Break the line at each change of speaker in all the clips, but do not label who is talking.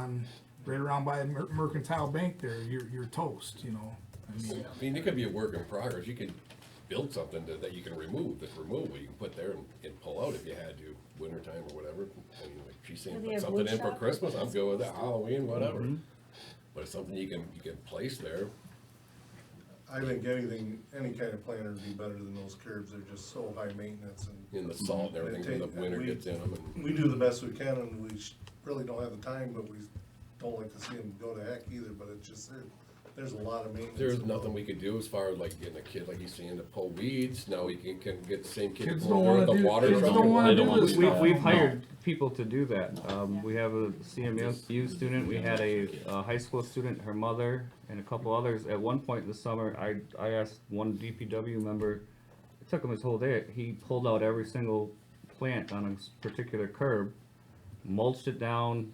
and right around by Mer- Mercantile Bank there, you're, you're toast, you know? I mean,
I mean, it could be a work in progress, you could build something that, that you can remove, that's removable, you can put there and, and pull out if you had to, wintertime or whatever. I mean, like she's saying,
Do they
put
have
something
wood
in for
shop?
Christmas, I'm good with that, Halloween, whatever.
Mm-hmm.
But it's something you can, you can place there,
I think anything, any kind of planter would be better than those curbs, they're just so high maintenance and
in the salt and
Mm-hmm.
everything, when the
take-
winter
we-
gets in them and.
we do the best we can and we sh- really don't have the time, but we don't like to see them go to heck either, but it's just, there- there's a lot of maintenance.
There's nothing we could do as far as like getting a kid, like he's saying, to pull weeds, now we can, can get the same kid
Kids
to
don't
go over
wanna
the
do-
water
kids
truck.
don't
and-
wanna
They
do
wanna
this
do
We've,
stuff.
that.
we've hired people to do that. Um, we have a CMU student, we had a, a high school student, her mother, and a couple others. At one point this summer, I, I asked one DPW member, it took him his whole day, he pulled out every single plant on a s- particular curb, mulched it down,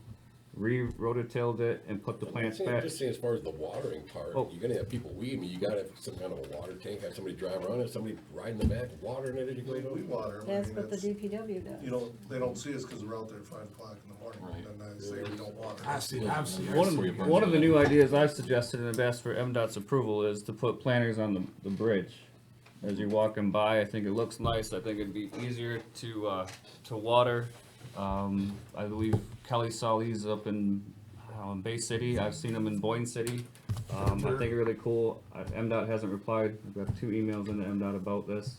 re-rototilled it, and put the
I'm
plants
saying-
back.
Just saying, as far as the watering part,
Oh.
you're gonna have people weed, I mean, you gotta have some kind of a water tank, have somebody drive around it, somebody riding the back, watering it as you go
We we
down.
water. 'em, I
That's
mean,
what the
it's-
DPW does.
You don't, they don't see us because we're out there at five o'clock in the morning,
Right.
and I say we don't water.
I see, I've seen, I've
One of,
seen-
the- one of the new ideas I've suggested and have asked for MDOT's approval is to put planters on the, the bridge. As you're walking by, I think it looks nice, I think it'd be easier to, uh, to water. Um, I believe Kelly saw these up in, um, Bay City, I've seen them in Boyne City. Um, I think they're really cool, Uh, MDOT hasn't replied, I've got two emails into MDOT about this.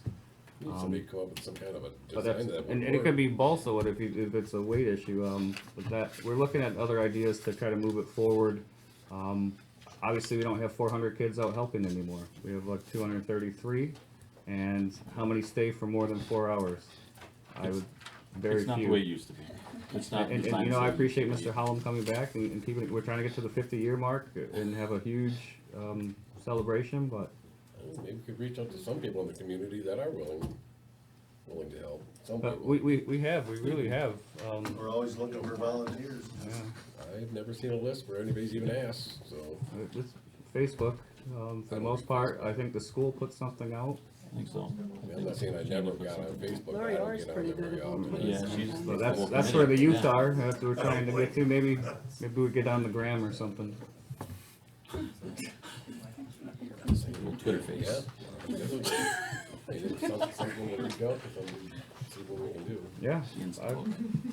Need Somebody come up with some kind of a
Um, But
design
that's,
that
and, and it
would
could
work.
be balsa wood if you, if it's a weight issue, um, but that, we're looking at other ideas to try to move it forward. Um, obviously, we don't have four hundred kids out helping anymore, we have like two hundred and thirty-three, and how many stay for more than four hours? I would, very few.
It's not the way it used to be. It's not.
And,
it's
and
not
you know, I
the same.
appreciate Mr. Hallam coming back and, and keeping, it- we're trying to get to the fifty-year mark and have a huge, um, celebration, but
Oh, Maybe we could reach out to some people in the community that are willing, willing to help, some
But
people.
we, we, we have, we really have, um,
We're always looking for volunteers.
yeah.
I've never seen a list where anybody's even asked, so.
Uh, It's Facebook, um, for the most part, I think the school put something out,
I think so.
I mean, I'm not saying I never got on Facebook, but I
Lori
don't
Orr's
get
pretty
on there very
good at
often.
them.
Yeah,
It's-
she's.
so that's, that's where the youth
Yeah.
are, that's what we're trying to get to, maybe, maybe we get on the gram or something.
Twitter face.
Yeah. Hey, there's some- Something to reach out to somebody, see what we can do.
Yeah,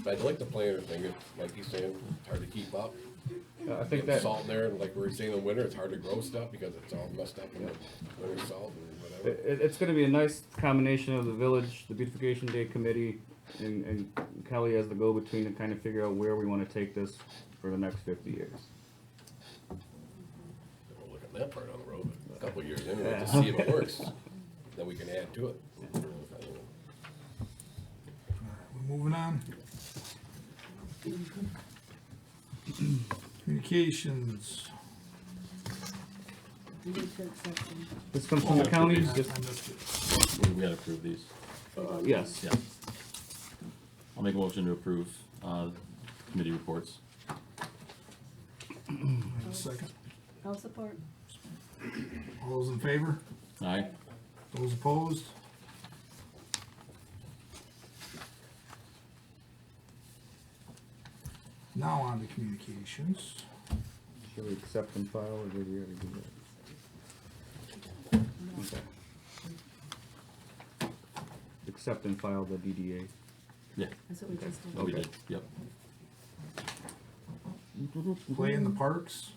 But I'd like the planter thing, it's like he's saying, it's hard to keep up.
I, I
Get
think that,
salt in there, and like we were saying in winter, it's hard to grow stuff because it's all messed up in the winter salt and whatever.
it, it's gonna be a nice combination of the village, the beautification day committee, and, and Kelly as the go-between to kind of figure out where we wanna take this for the next fifty years.
Don't Look at that part on the road, but a couple of years anyway, to see if it works, then we can add to it.
we're moving on. Communications.
You need to accept them.
This comes from the county, just,
I missed it.
We gotta approve these.
yes,
Yeah. I'll make a motion to approve, uh, committee reports.
Wait a second.
I'll support.
All those in favor?
Aye.
Those opposed? Now on to communications.
should we accept and file, or did we already do that? Okay. Accept and file the DDA.
Yeah,
That's what we just
oh,
did.
we
Okay.
did, yep.
Play in the parks.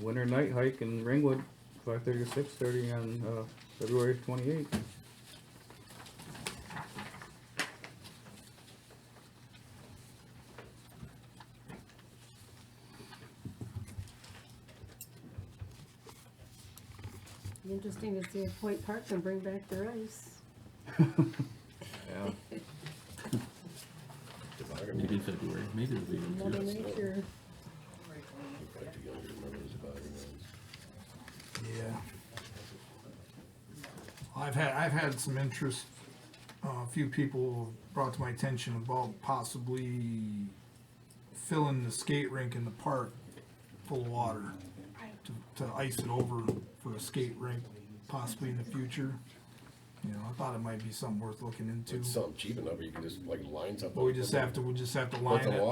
Winter night hike in Ringwood, five thirty to six thirty on, uh, February twenty-eighth.
Be Interesting to see if Point Park can bring back their ice.
Yeah.
Toboggan,
Maybe in February, maybe it'll be. in
Mother
June.
Nature,
you quite the younger, remember the toboggan ones?
Yeah. I've had, I've had some interest, uh, a few people brought to my attention about possibly filling the skate rink in the park full of water to, to ice it over for a skate rink possibly in the future. You know, I thought it might be something worth looking into,
It's something cheap enough, you can just like line something.
but we just have to, we just have to line it.